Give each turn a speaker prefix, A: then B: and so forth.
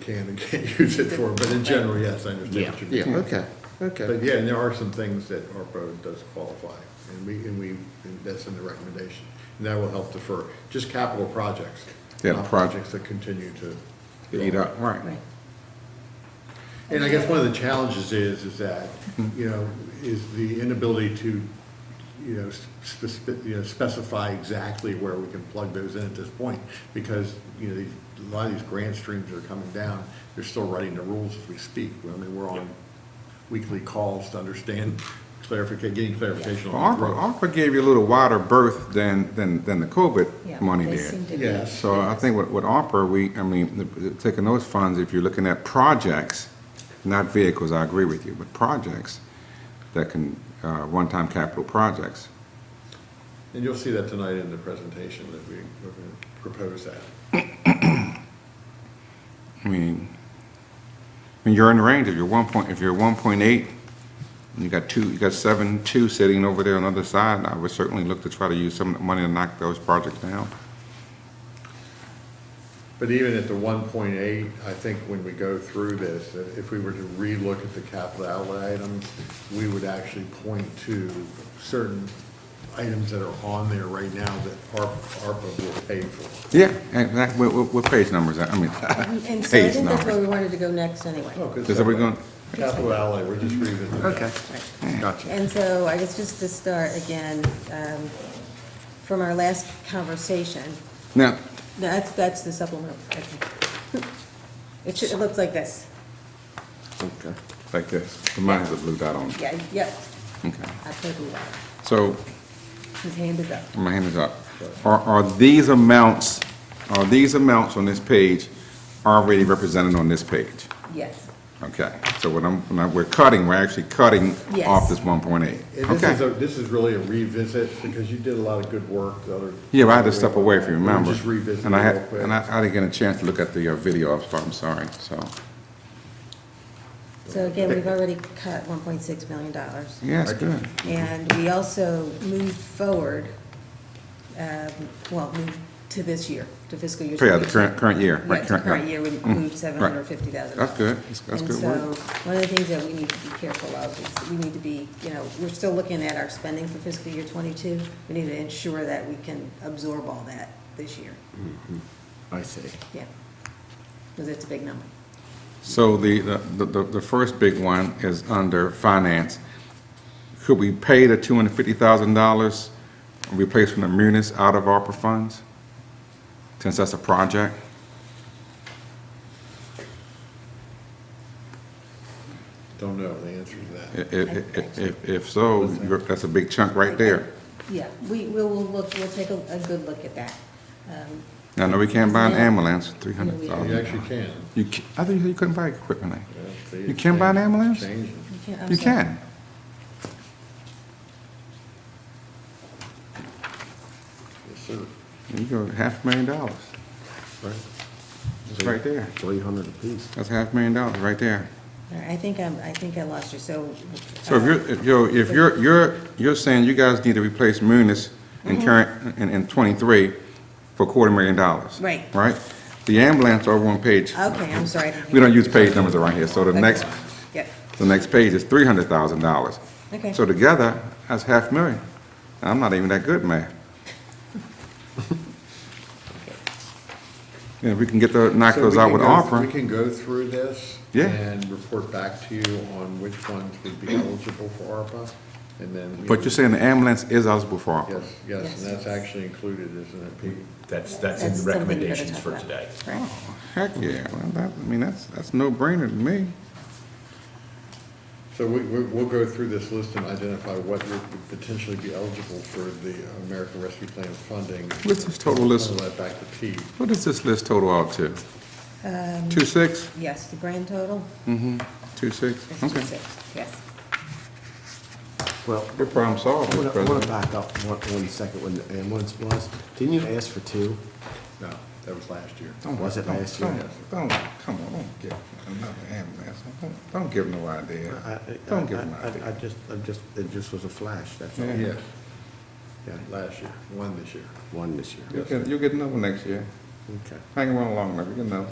A: can and can't use it for, but in general, yes, I understand what you mean.
B: Yeah, okay,
A: But
B: okay.
A: yeah, and there are some things that ARPA does qualify, and we, and we, and that's in the recommendation. And that will help defer, just capital projects,
C: Yeah,
A: not
C: proj-
A: projects that continue to.
C: Eat up, right.
D: Right.
A: And I guess one of the challenges is, is that, you know, is the inability to, you know, spec- you know, specify exactly where we can plug those in at this point, because, you know, these- a lot of these grant streams are coming down, they're still writing the rules as we speak, I mean, we're on weekly calls to understand clarification, getting clarification on the growth.
C: ARPA, ARPA gave you a little wider berth than, than, than the
D: Yeah,
C: COVID money
D: they
C: did.
D: seem to be-
A: Yes.
C: So I think with, with ARPA, we, I mean, the- the- taking those funds, if you're looking at projects, not vehicles, I agree with you, but projects that can, uh, one-time capital projects.
A: And you'll see that tonight in the presentation that we, we're gonna propose that.
C: I mean, I mean, you're in the range, if you're one point, if you're one point eight, you got two, you got seven, two sitting over there on the other side, I would certainly look to try to use some of the money to knock those projects down.
A: But even at the one point eight, I think when we go through this, uh, if we were to relook at the capital outlay items, we would actually point to certain items that are on there right now that ARPA, ARPA will pay for.
C: Yeah, and that, what, what- what page numbers, I mean,
D: Um, And so I
C: page
D: think that's where
C: numbers.
D: we wanted to go next anyway.
A: Oh, 'cause
C: Is that we going-
A: Capital outlay, we're just revisiting. that.
B: Okay, gotcha.
D: And so I guess just to start again, um, from our last conversation,
C: Now,
D: that's, that's the supplemental. okay. It should, it looks like this.
C: okay, like this, mine has a blue dot on it,
D: Yeah, yep,
C: okay.
D: I put it up.
C: So,
D: His hand is up.
C: my hand is up. Are, are these amounts, are these amounts on this page already represented on this page?
D: Yes.
C: Okay, so what I'm, when I- we're cutting, we're actually cutting
D: Yes.
C: off this one point eight.
A: And this is, a-
C: Okay,
A: this is really a revisit, because you did a lot of good work the other.
C: yeah, but I had to step away from you, remember?
A: We're Just revisiting.
C: And I had,
A: real quick.
C: and I, I didn't get a chance to look at the uh, video, I'm I'm sorry, so,
D: So again, we've already cut one point six million dollars.
C: yeah, it's good.
D: And we also moved forward, um, well, moved to this year, to fiscal year.
C: Oh, Yeah, the current, current year, right?
D: Right, to current year, we moved seven hundred and
C: Right.
D: fifty thousand.
C: That's good. That's- that's good work.
D: And so, one of the things that we need to be careful of is, we need to be, you know, we're still looking at our spending for fiscal year twenty-two. We need to ensure that we can absorb all that this year,
C: Mm-hmm.
B: I see.
D: yeah, because it's a big number.
C: So the, the, the, the first big one is under finance. Could we pay the two hundred fifty thousand dollars replacement of munis out of ARPA funds? Since that's a project?
A: Don't know the answer to that.
C: I- i- i- i- If, if so, you're- that's a big chunk right there.
D: Yeah, we, we will look, we'll take a, a good look at that. Um,
C: Now, no, we can't buy an ambulance, three hundred
A: You
C: thousand.
A: actually can.
C: You, ca- I thought you said you couldn't buy equipment. like-
A: Yeah, they
C: You can buy an
A: change-
C: ambulance?
A: change it.
D: You can't- I'm
C: You
D: sorry.
C: can.
A: Yes, sir.
C: You go, half a million dollars. It's right there.
B: Three hundred apiece.
C: That's half a million dollars right there.
D: All right, I think I'm, I think I lost you, so.
C: So if you're, if you're, if you're, you're, you're saying you guys need to replace Munis
D: Mm-hmm.
C: in current, in, in twenty-three for a quarter million dollars?
D: Right.
C: Right? The ambulance are on page,
D: Uh, Okay, I'm sorry. I didn't hear
C: we don't
D: you.
C: use page numbers around here, so the
D: Okay.
C: next,
D: Yep,
C: the next page is three hundred thousand dollars.
D: Okay.
C: So together, that's half million. I'm not even that good at math. Yeah, we can get the, knock
A: So
C: those
A: we
C: out
A: can
C: with
A: go-
C: offer.
A: We can go through this.
C: Yeah.
A: And report back to you on which ones would be eligible for ARPA, and then. you
C: But
A: know,
C: you're saying the ambulance is eligible for ARPA?
A: Yes, yes,
D: Yes.
A: and that's actually included, isn't it, Pete?
E: That's, that's in
D: That's
E: the
D: something we better
E: recommendations
D: talk
E: for
D: about.
E: today.
D: right.
C: Heck, yeah, well, that, I mean, that's, that's no-brainer to me.
A: So we, we- we'll go through this list and identify what would potentially be eligible for the American Rescue Plan funding.
C: What's this total list?
A: Send that back to Pete.
C: What does this list total out to?
D: Um,
C: Two six?
D: Yes, the grand total
C: Mm-hmm. Two six?
D: is two
C: Okay.
D: six, yes.
B: Well,
C: Good problem solved,
B: I
C: Mr.
B: want to, I want
C: President.
B: to back up one, one second when the ambulance was. Didn't you ask for two? Oh,
A: No, that was last year.
B: Was it last year?
C: Don't, don't- come on, don't give another ambulance. Don't, don't give no
B: I- I-
C: idea.
B: I-
C: Don't give no
B: I- I I
C: idea.
B: just, I just, it just was a flash, that's all.
C: Yeah.
A: Yes,
B: Yeah,
A: last year, one this year.
B: One this year.
C: You'll get, you'll get another one next year.
B: Okay.
C: Hang around long enough, you can know.